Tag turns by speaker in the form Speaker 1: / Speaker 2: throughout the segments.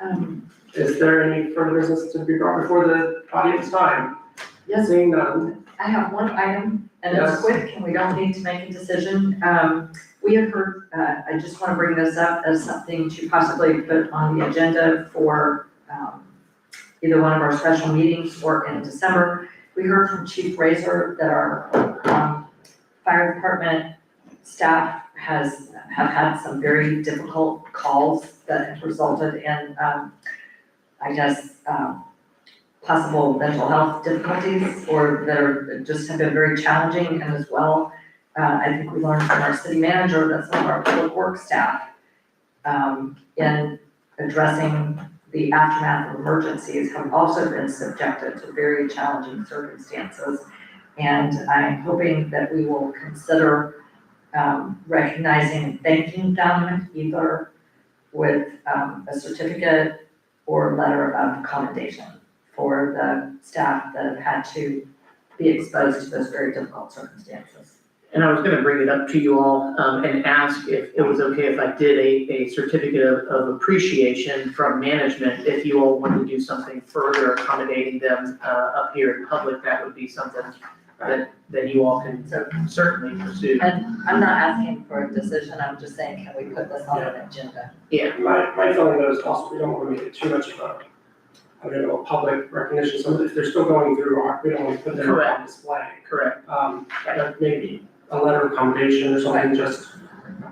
Speaker 1: Um,
Speaker 2: Is there any further business to be brought before the audience time?
Speaker 1: Yes,
Speaker 2: Seeing none,
Speaker 1: I have one item, and
Speaker 2: Yes.
Speaker 1: it's quick, and we don't need to make a decision. Um, we have heard, uh, I just wanna bring this up as something to possibly put on the agenda for, um, either one of our special meetings or in December. We heard from Chief Razor that our, um, fire department staff has, have had some very difficult calls that have resulted in, um, I guess, um, possible mental health difficulties or that are, just have been very challenging and as well, uh, I think we learned from our city manager that some of our public work staff um, in addressing the aftermath of emergencies have also been subjected to very challenging circumstances. And I'm hoping that we will consider um, recognizing and thanking them either with um, a certificate or letter of commendation for the staff that have had to be exposed to those very difficult circumstances.
Speaker 3: And I was gonna bring it up to you all, um, and ask if it was okay if I did a, a certificate of, of appreciation from management. If you all wanted to do something further accommodating them, uh, up here in public, that would be something that, that you all can certainly pursue.
Speaker 1: I'm not asking for a decision, I'm just saying, can we put this on an agenda?
Speaker 2: my, my feeling though is also we don't wanna make it too much of a, I don't know, a public recognition, so if they're still going through, our- we don't wanna put them on
Speaker 3: Correct.
Speaker 2: display.
Speaker 3: Correct,
Speaker 2: Um, but maybe a letter of commendation or something, just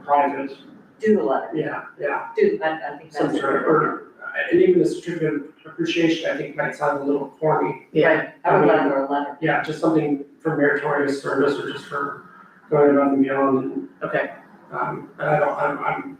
Speaker 2: private,
Speaker 1: Do a letter,
Speaker 2: yeah, yeah,
Speaker 1: do, I, I think that's.
Speaker 2: some sort of, or, uh, and even a certificate of appreciation, I think might sound a little corny,
Speaker 3: yeah.
Speaker 1: Right, I would rather a letter,
Speaker 2: Yeah, just something for meritorious service or just for going above and beyond and.
Speaker 3: Okay.
Speaker 2: Um, and I don't, I'm, I'm,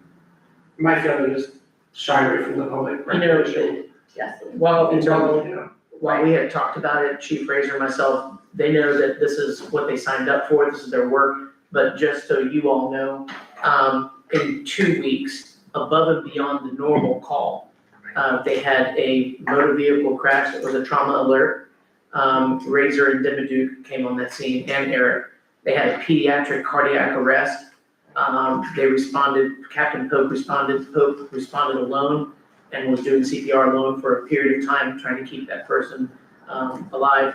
Speaker 2: my feeling is shy away from the public.
Speaker 3: You know,
Speaker 2: recognition.
Speaker 1: yes.
Speaker 3: While,
Speaker 2: In terms
Speaker 3: while
Speaker 2: of, you know,
Speaker 3: while we had talked about it, Chief Razor and myself, they know that this is what they signed up for, this is their work. But just so you all know, um, in two weeks, above and beyond the normal call, uh, they had a motor vehicle crash that was a trauma alert. Um, Razor and Dimmaduk came on that scene and Eric. They had a pediatric cardiac arrest. Um, they responded, Captain Pope responded, Pope responded alone and was doing CPR alone for a period of time, trying to keep that person um, alive.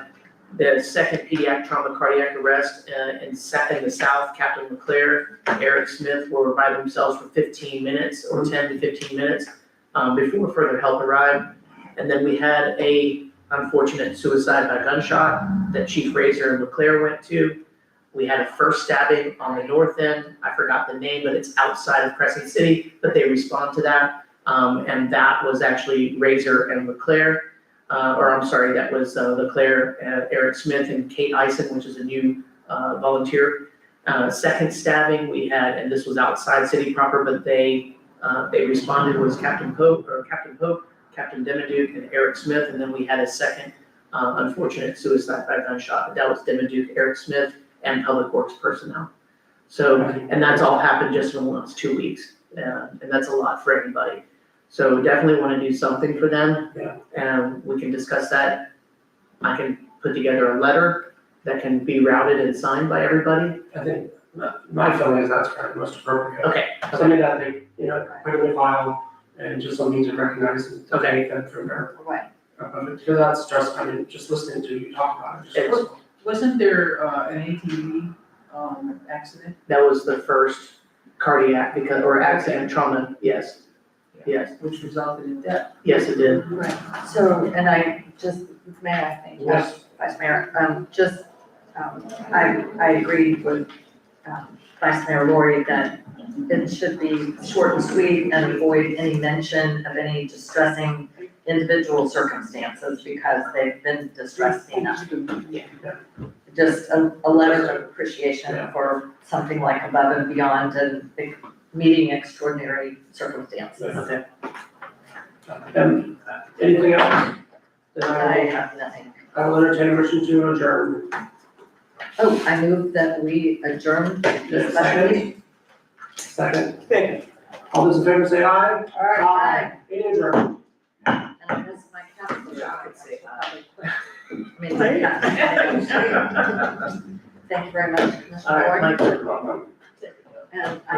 Speaker 3: The second pediatric trauma cardiac arrest uh, in Sa- in the south, Captain LeClaire, Eric Smith were by themselves for fifteen minutes or ten to fifteen minutes um, before further help arrived. And then we had a unfortunate suicide by gunshot that Chief Razor and LeClaire went to. We had a first stabbing on the north end. I forgot the name, but it's outside of Crescent City, but they respond to that. Um, and that was actually Razor and Leclerc, uh, or I'm sorry, that was, uh, Leclerc, uh, Eric Smith and Kate Ison, which is a new, uh, volunteer. Uh, second stabbing we had, and this was outside city proper, but they, uh, they responded was Captain Pope, or Captain Pope, Captain Demiduke and Eric Smith, and then we had a second, uh, unfortunate suicide by gunshot, but that was Demiduke, Eric Smith, and Public Works personnel. So, and that's all happened just in the last two weeks, uh, and that's a lot for anybody. So we definitely wanna do something for them.
Speaker 2: Yeah.
Speaker 3: And we can discuss that. I can put together a letter that can be routed and signed by everybody.
Speaker 2: I think, my- my feeling is that's probably most appropriate.
Speaker 3: Okay,
Speaker 2: Something that they, you know, put in the file and just something to recognize and to
Speaker 3: Okay.
Speaker 2: thank them for their,
Speaker 1: Right,
Speaker 2: uh, because that's just, I mean, just listening to you talk about it, just.
Speaker 3: It's-
Speaker 4: Wasn't there uh an ATV um accident?
Speaker 3: that was the first cardiac because, or accident trauma, yes. Yes,
Speaker 4: Which resulted in death?
Speaker 3: yes, it did.
Speaker 1: right. So, and I just, may I thank you?
Speaker 2: Yes,
Speaker 1: Vice Mayor, um, just, um, I, I agree with, um, Vice Mayor Lori that it should be short and sweet and avoid any mention of any distressing individual circumstances because they've been distressed enough. Just a, a letter of appreciation for something like above and beyond and meeting extraordinary circumstances.
Speaker 3: Okay.
Speaker 2: and uh, anything else? Then
Speaker 1: I
Speaker 2: I will,
Speaker 1: have nothing.
Speaker 2: I will entertain a motion to adjourn.
Speaker 1: Oh, I move that we adjourn this special meeting.
Speaker 2: Second. Second. All those in favor say aye.
Speaker 1: All right. Aye.
Speaker 2: Any adjourned?
Speaker 1: And I miss my calendar.
Speaker 2: Yeah, I
Speaker 1: I
Speaker 2: could say
Speaker 1: mean, yeah. Thank you very much, Commissioner
Speaker 3: All right,
Speaker 1: Ward.
Speaker 3: Mike.
Speaker 2: Welcome.
Speaker 1: And I